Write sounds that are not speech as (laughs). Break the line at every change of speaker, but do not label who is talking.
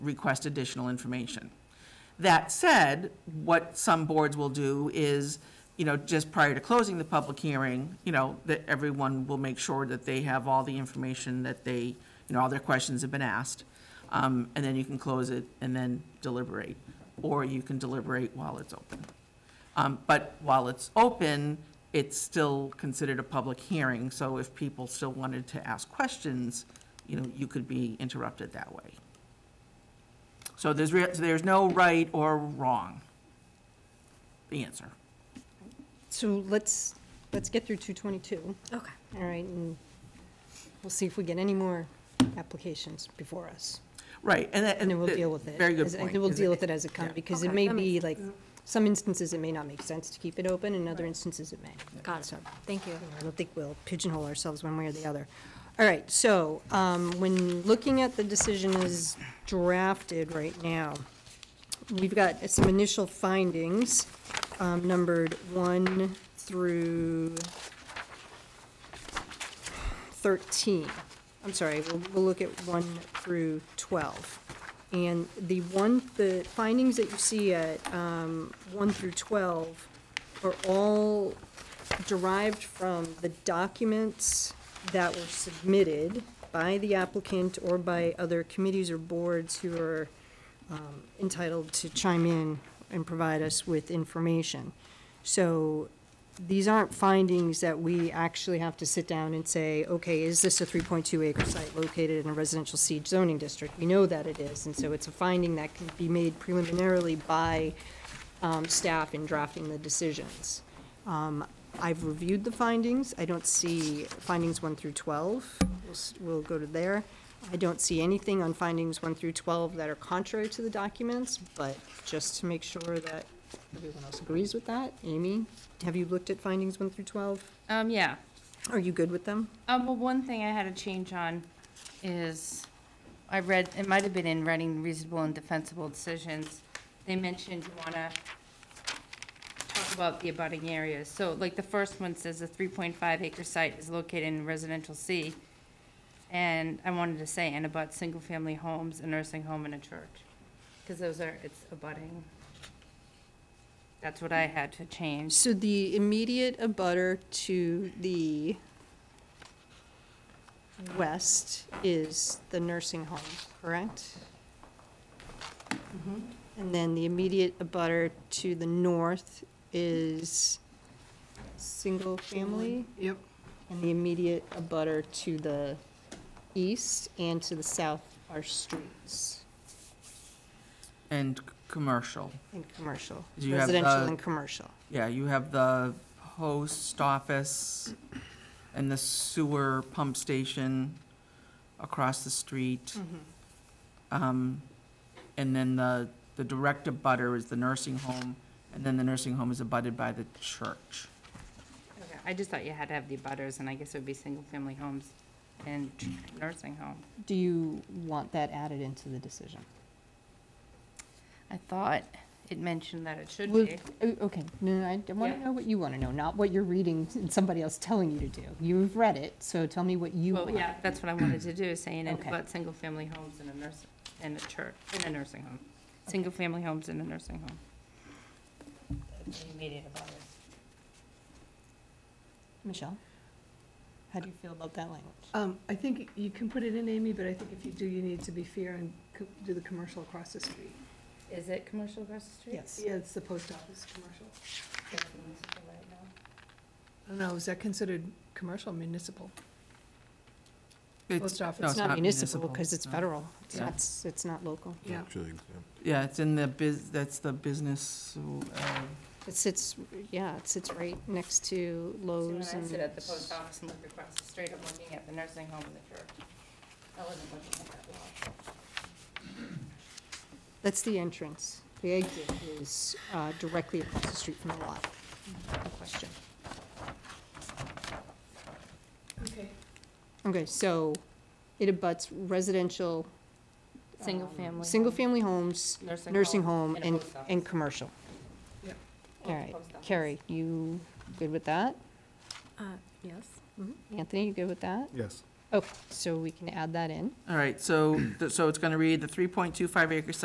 request additional information. That said, what some boards will do is, you know, just prior to closing the public hearing, you know, that everyone will make sure that they have all the information that they, you know, all their questions have been asked. Um, and then you can close it and then deliberate, or you can deliberate while it's open. Um, but while it's open, it's still considered a public hearing, so if people still wanted to ask questions, you know, you could be interrupted that way. So there's, rea- so there's no right or wrong answer.
So let's, let's get through 222,
Okay.
all right, and we'll see if we get any more applications before us.
Right, and that,
And
and.
then we'll
the-
deal with it.
Very good
as-
point.
And we'll
is
deal with it as it
yeah.
comes, because it
Okay,
may
that
be
makes-
like, some instances it may not make sense to keep it open, in other instances it may.
Got it.
So,
Thank you.
I don't think we'll pigeonhole ourselves one way or the other. All right, so, um, when looking at the decision as drafted right now, we've got some initial findings, um, numbered one through thirteen. I'm sorry, we'll, we'll look at one through twelve. And the one, the findings that you see at, um, one through twelve are all derived from the documents that were submitted by the applicant or by other committees or boards who are um, entitled to chime in and provide us with information. So these aren't findings that we actually have to sit down and say, okay, is this a 3.2 acre site located in a residential siege zoning district? We know that it is, and so it's a finding that can be made preliminarily by um, staff in drafting the decisions. Um, I've reviewed the findings. I don't see findings one through 12. We'll s- We'll go to there. I don't see anything on findings one through 12 that are contrary to the documents, but just to make sure that everyone else agrees with that, Amy, have you looked at findings one through 12?
Um, yeah.
Are you good with them?
Um, well, one thing I had a change on is, I read, it might have been in writing reasonable and defensible decisions. They mentioned you wanna talk about the abutting areas. So like the first one says a three point five acre site is located in residential C. And I wanted to say, and about single-family homes, a nursing home, and a church. Cause those are, it's abutting. That's what I had to change.
So the immediate abutter to the west is the nursing home, correct? Mm-hmm. And then the immediate abutter to the north is single family?
Yep.
And the immediate abutter to the east and to the south are streets
And c- commercial.
and commercial,
Do you have uh,
residential
the-
and commercial.
Yeah, you have the post office and the sewer pump station across the street.
Mm-hmm.
Um, And then the, the direct abutter is the nursing home, and then the nursing home is abutted by the church.
Okay, I just thought you had to have the butters, and I guess it would be single-family homes and nursing home.
Do you want that added into the decision?
I thought it mentioned that it should
Well,
be.
o- okay, no, no, I want to
Yeah.
know what you want to know, not what you're reading (laughs) and somebody else telling you to do. You've read it, so tell me what you
Well,
want.
yeah, that's what I wanted to do, is saying it
Okay.
about single-family homes and a nurse, and a church, and a nursing home. Single-family homes and a nursing home. Immediate abutters.
Michelle? How do you feel about that language?
Um, I think you can put it in, Amy, but I think if you do, you need to be fair and co- do the commercial across the street.
Is it commercial across the street?
Yes.
Yeah, it's the post office commercial.
It's municipal right now.
I don't know, is that considered commercial municipal?
It's,
Post office.
no,
It's not municipal because it's
no.
federal. It's
Yeah.
not, s- it's not local.
Yeah,
Actually,
Yeah, it's in the biz, that's the business, uh,
It sits, yeah, it sits right next to Lowe's
See, when I sit
and
at the post office and look across the street, I'm looking at the nursing home and the church. I wasn't looking at that lot.
that's the entrance. The exit is uh, directly across the street from the lot. No question.
okay.
Okay, so it abuts residential
Single family.
Single-family homes,
Nursing
nursing
home,
home,
and a
and,
post office.
and commercial.
Yep.
All right, Carrie, you good with that?
Uh, yes.
Anthony, you good with that?
Yes.
Okay, so we can add that in.
All right, so, so it's going to read the 3.25 acre site